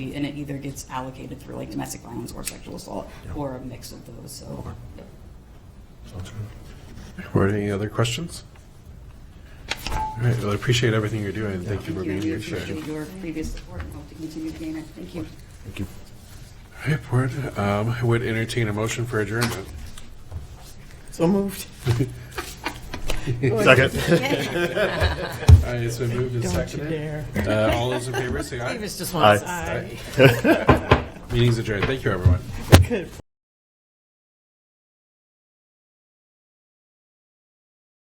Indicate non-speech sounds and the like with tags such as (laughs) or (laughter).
and it either gets allocated through like domestic violence or sexual assault, or a mix of those, so. Or any other questions? All right, well, I appreciate everything you're doing. Thank you for Thank you, being and we here today. appreciate your previous support and hope to continue to gain it, thank you. Thank you. All right, board, um, I would entertain a motion for adjournment. So moved. Second. All right, it's been moved Don't and you seconded. dare. Uh, all (laughs) those in favor, say aye. Davis just wants Aye. aye. Meeting's adjourned. Thank you, everyone. Good.